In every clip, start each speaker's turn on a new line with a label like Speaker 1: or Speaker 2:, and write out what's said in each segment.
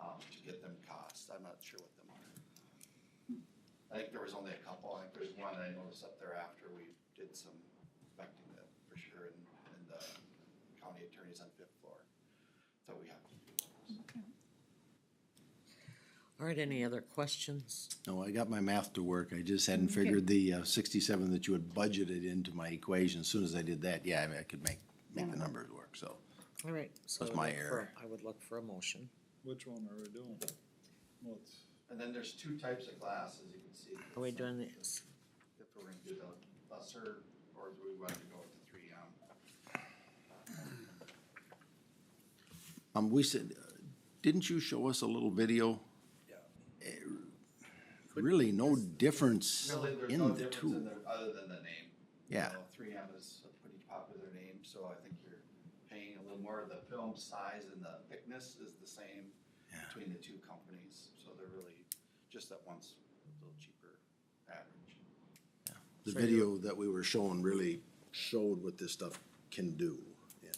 Speaker 1: um, get them costs, I'm not sure what them are. I think there was only a couple, I think there's one I noticed up there after we did some inspecting that for sure, and, and the county attorney's on fifth floor. So we have to do those.
Speaker 2: All right, any other questions?
Speaker 3: No, I got my math to work. I just hadn't figured the uh, sixty-seven that you had budgeted into my equation. As soon as I did that, yeah, I mean, I could make, make the numbers work, so.
Speaker 2: All right, so I would
Speaker 3: That's my
Speaker 2: look for-
Speaker 3: error.
Speaker 2: I would look for a motion.
Speaker 4: Which one are we doing? Well, it's
Speaker 1: And then there's two types of glasses, you can see.
Speaker 2: Are we doing this?
Speaker 1: If we're gonna do the lesser, or do we want to go with the three M?
Speaker 3: Um, we said, uh, didn't you show us a little video?
Speaker 1: Yeah.
Speaker 3: Eh, Really no difference
Speaker 1: Really, there's no
Speaker 3: in the
Speaker 1: difference in
Speaker 3: two.
Speaker 1: there, other than the name. You
Speaker 3: Yeah.
Speaker 1: know, Three M is a pretty popular name, so I think you're paying a little more, the film size and the thickness is the same
Speaker 3: Yeah.
Speaker 1: between the two companies, so they're really, just that one's a little cheaper average.
Speaker 3: The
Speaker 2: So you-
Speaker 3: video that we were shown really showed what this stuff can do. And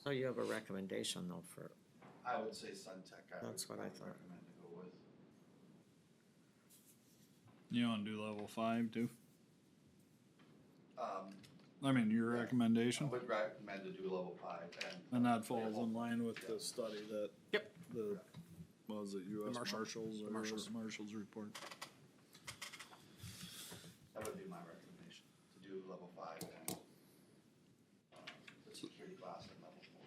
Speaker 2: So you have a recommendation though for,
Speaker 1: I would say Suntech, I would
Speaker 2: That's what I
Speaker 1: probably
Speaker 2: thought.
Speaker 1: recommend to go with.
Speaker 4: you want to do level five too?
Speaker 1: Um,
Speaker 4: I mean, your recommendation,
Speaker 1: I would recommend to do level five and.
Speaker 4: and that falls in line with the study that. Yep. The what was it U.S.
Speaker 5: Marshal-
Speaker 4: Marshals or
Speaker 5: Marshals.
Speaker 4: Marshals report?
Speaker 1: That would be my recommendation, to do level five and, um, the security glass at level four,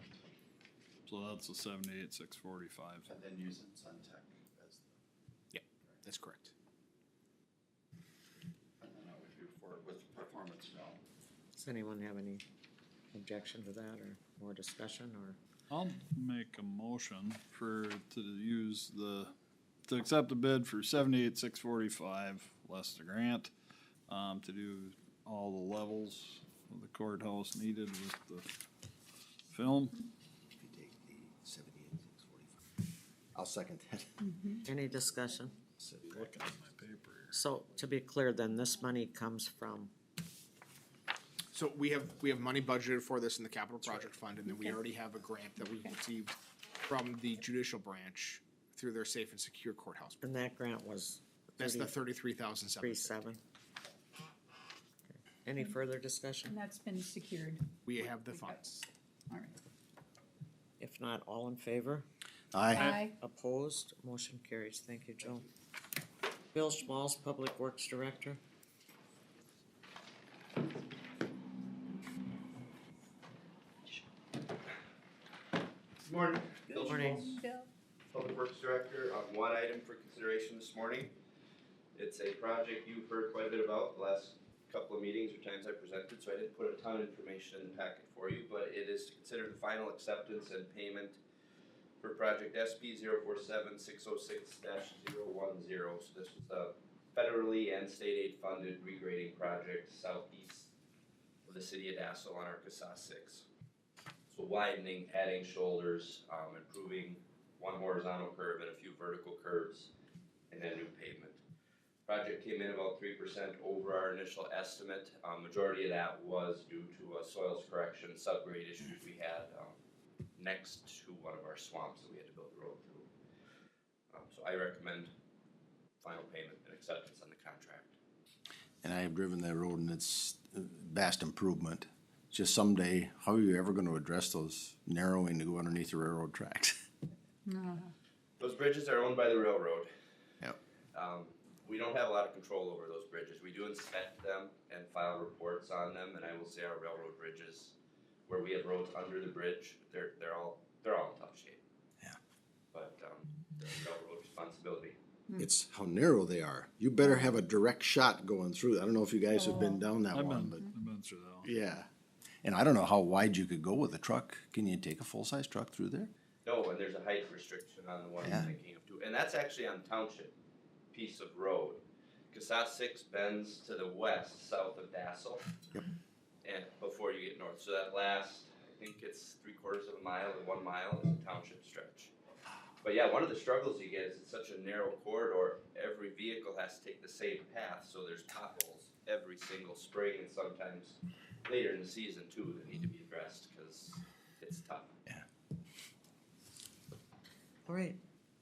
Speaker 4: So that's a seventy-eight six forty-five.
Speaker 1: and then using Suntech as the
Speaker 5: That's correct.
Speaker 1: And then I would do for, with performance film.
Speaker 2: does anyone have any objection to that or more discussion or?
Speaker 4: I'll make a motion for to use the to accept a bid for seventy-eight six forty-five less the grant um, to do all the levels of the courthouse needed with the film.
Speaker 3: if you take the seventy-eight, six forty-five. I'll second that.
Speaker 2: Any discussion?
Speaker 4: Looking at my paper here.
Speaker 2: So to be clear then, this money comes from,
Speaker 5: So we have, we have money budgeted for this in the capital project fund, and then we already have a grant that we received from the judicial branch through their safe and secure courthouse.
Speaker 2: and that grant was
Speaker 5: That's the thirty-three thousand
Speaker 2: three
Speaker 5: seven.
Speaker 2: seven? Any further discussion?
Speaker 6: And that's been secured,
Speaker 5: We have the funds.
Speaker 6: all right.
Speaker 2: If not, all in favor?
Speaker 3: Aye.
Speaker 2: Opposed? Motion carries. Thank you, Joe. Bill Schmalz, Public Works Director.
Speaker 7: Good morning. Bill
Speaker 2: Morning.
Speaker 7: Schmaltz,
Speaker 6: Bill?
Speaker 7: Public Works Director, on one item for consideration this morning. It's a project you've heard quite a bit about the last couple of meetings or times I presented, so I didn't put a ton of information in the packet for you, but it is to consider the final acceptance and payment for project SP zero four seven six oh six dash zero one zero. So this is a federally and state aid funded regrading project southeast of the city of Dassel on Arkansas six. So widening, adding shoulders, um, improving one horizontal curve and a few vertical curves, and then new pavement. Project came in about three percent over our initial estimate. Um, majority of that was due to a soils correction subgrade issues we had, um, next to one of our swamps that we had to build a road through. Um, so I recommend final payment and acceptance on the contract.
Speaker 3: And I have driven that road and it's uh, vast improvement. Just someday, how are you ever gonna address those narrowing to go underneath the railroad tracks?
Speaker 7: Those bridges are owned by the railroad.
Speaker 3: Yep.
Speaker 7: Um, we don't have a lot of control over those bridges. We do inspect them and file reports on them, and I will say our railroad bridges, where we have roads under the bridge, they're, they're all, they're all in top shape.
Speaker 3: Yeah.
Speaker 7: But, um, the railroad responsibility.
Speaker 3: It's how narrow they are. You better have a direct shot going through. I don't know if you guys have been down that
Speaker 4: I've
Speaker 3: one,
Speaker 4: been,
Speaker 3: but
Speaker 4: I've been through that one.
Speaker 3: yeah. And I don't know how wide you could go with a truck. Can you take a full-size truck through there?
Speaker 7: No, and there's a height restriction on the one I'm
Speaker 3: Yeah.
Speaker 7: thinking of too, and that's actually on township piece of road. Casas six bends to the west, south of Dassel. And before you get north, so that last, I think it's three quarters of a mile to one mile is a township stretch. But yeah, one of the struggles you get is it's such a narrow corridor, every vehicle has to take the same path, so there's potholes every single spring and sometimes later in the season too that need to be addressed, cause it's tough.
Speaker 2: All right,